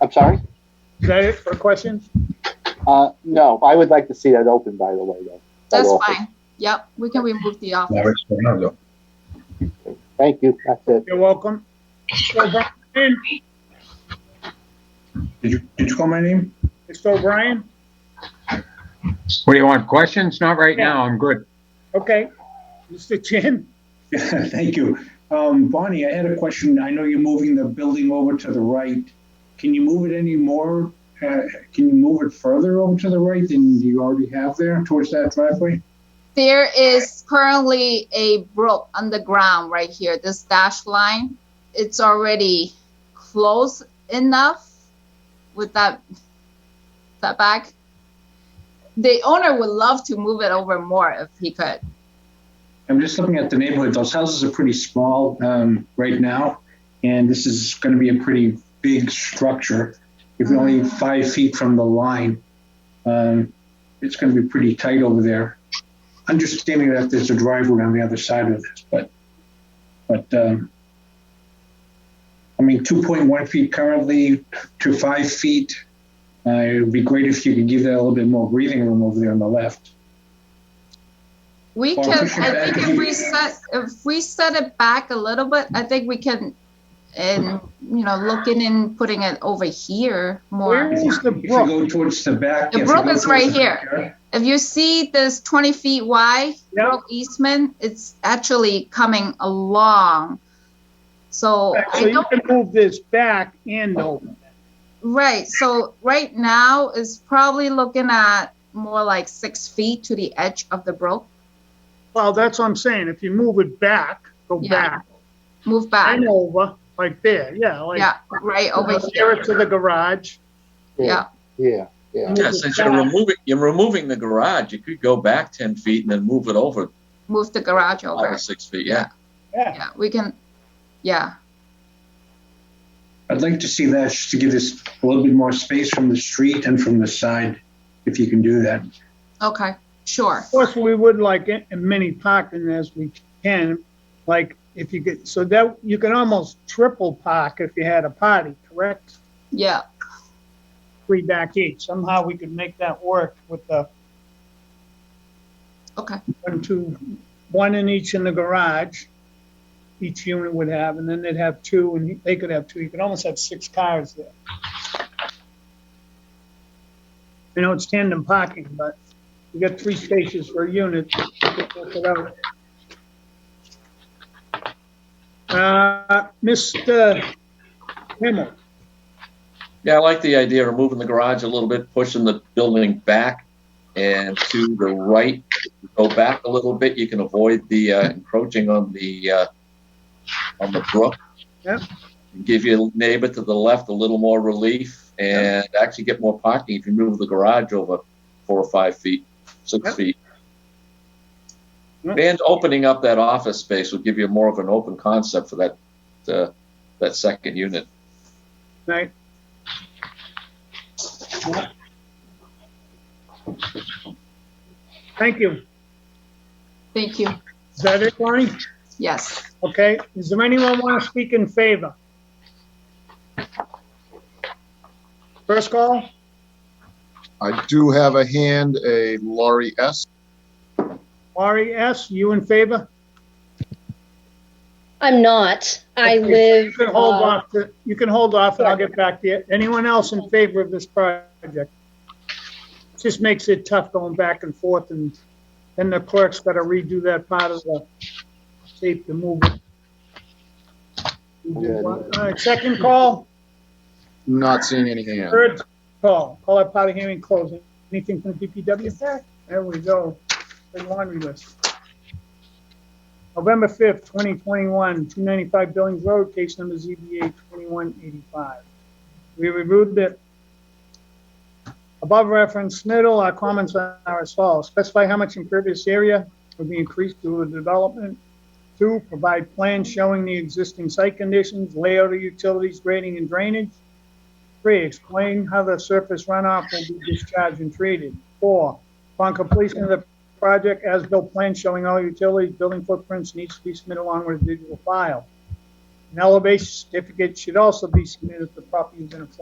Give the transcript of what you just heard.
I'm sorry? Is that it for questions? Uh, no, I would like to see that open, by the way, though. That That's office. fine. Yep, we can remove the No, office. it's Fernando. Thank you, that's it. You're welcome. Mr. O'Brien? Did you, did you call my name? Mr. O'Brien? What do you want, questions? Not right now, I'm good. Okay. Mr. Chin? Thank you. Um, Bonnie, I had a question. I know you're moving the building over to the right. Can you move it any more? Uh, can you move it further over to the right than you already have there towards that driveway? There is currently a brook underground right here, this dash line. It's already close enough with that, that back. The owner would love to move it over more if he could. I'm just looking at the neighborhood. Those houses are pretty small um, right now, and this is going to be a pretty big structure. If you're only five feet from the line, um, it's going to be pretty tight over there. Understanding that there's a driveway on the other side of this, but but um, I mean, 2.1 feet currently to five feet. Uh, it would be great if you could give that a little bit more breathing room over there on the left. We Well, can, we should I think back if it. we set, if we set it back a little bit, I think we can, and, you know, looking and putting it over here Where more. is the If you brook? go towards the back, The if you brook go is right towards the here. backyard- If you see this twenty feet wide, Yeah, Brook Eastman, it's actually coming along. So so I you don't, can move this back and over. right, so right now is probably looking at more like six feet to the edge of the brook, Well, that's what I'm saying. If you move it back, go Yeah. back move back, and over, like there, yeah, like. yeah, right over Nearer here, to the garage. yeah. Yeah, yeah. Yeah, since you're removing, you're removing the garage, you could go back ten feet and then move it over Move the garage five over, or six feet, yeah. Yeah, yeah, we can, yeah, I'd like to see that just to give this a little bit more space from the street and from the side, if you can do that. okay, sure, of course, we would like a- a mini parking as we can, like, if you could, so that, you can almost triple park if you had a party, correct? yeah, Three back each, somehow we could make that work with the okay, one, two, one in each in the garage. Each unit would have, and then they'd have two, and they could have two, you could almost have six cars there. I know it's tandem parking, but you got three spaces per unit. you could work it out. Uh, Mr. Himmel, Yeah, I like the idea of moving the garage a little bit, pushing the building back and to the right. Go back a little bit, you can avoid the uh, encroaching on the, uh, on the brook. Yep. Give your neighbor to the left a little more relief and actually get more parking if you move the garage over four or five feet, six Yep. feet. Yep. And opening up that office space will give you more of an open concept for that, uh, that second unit. right? Thank you. thank you, Is that it, Lonnie? yes. Okay, does there anyone want to speak in favor? First call? I do have a hand, a Laurie S. Laurie S., you in favor? I'm not. I Okay, You live. can hold uh, off, to- you can hold off, and I'll get back to you. Anyone else in favor of this project? Just makes it tough going back and forth, and then the clerk's got to redo that part of the tape to move it. Yeah. All right, second call? Not seeing any hand. Third call, call out part of hearing closing. Anything from the DPW? There we go. Big laundry list. November fifth, twenty twenty-one, two ninety-five Billings Road, case number ZBA twenty-one eighty-five. We reviewed the above referenced Sniddle, our comments are as follows. Specify how much impervious area would be increased due to the development. Two, provide plans showing the existing site conditions, layout of utilities, grading and drainage. Three, explain how the surface runoff will be discharged and treated. Four, upon completion of the project, as-built plan showing all utilities, building footprints needs to be submitted along with a digital file. An elevation certificate should also be submitted if the property is in a flood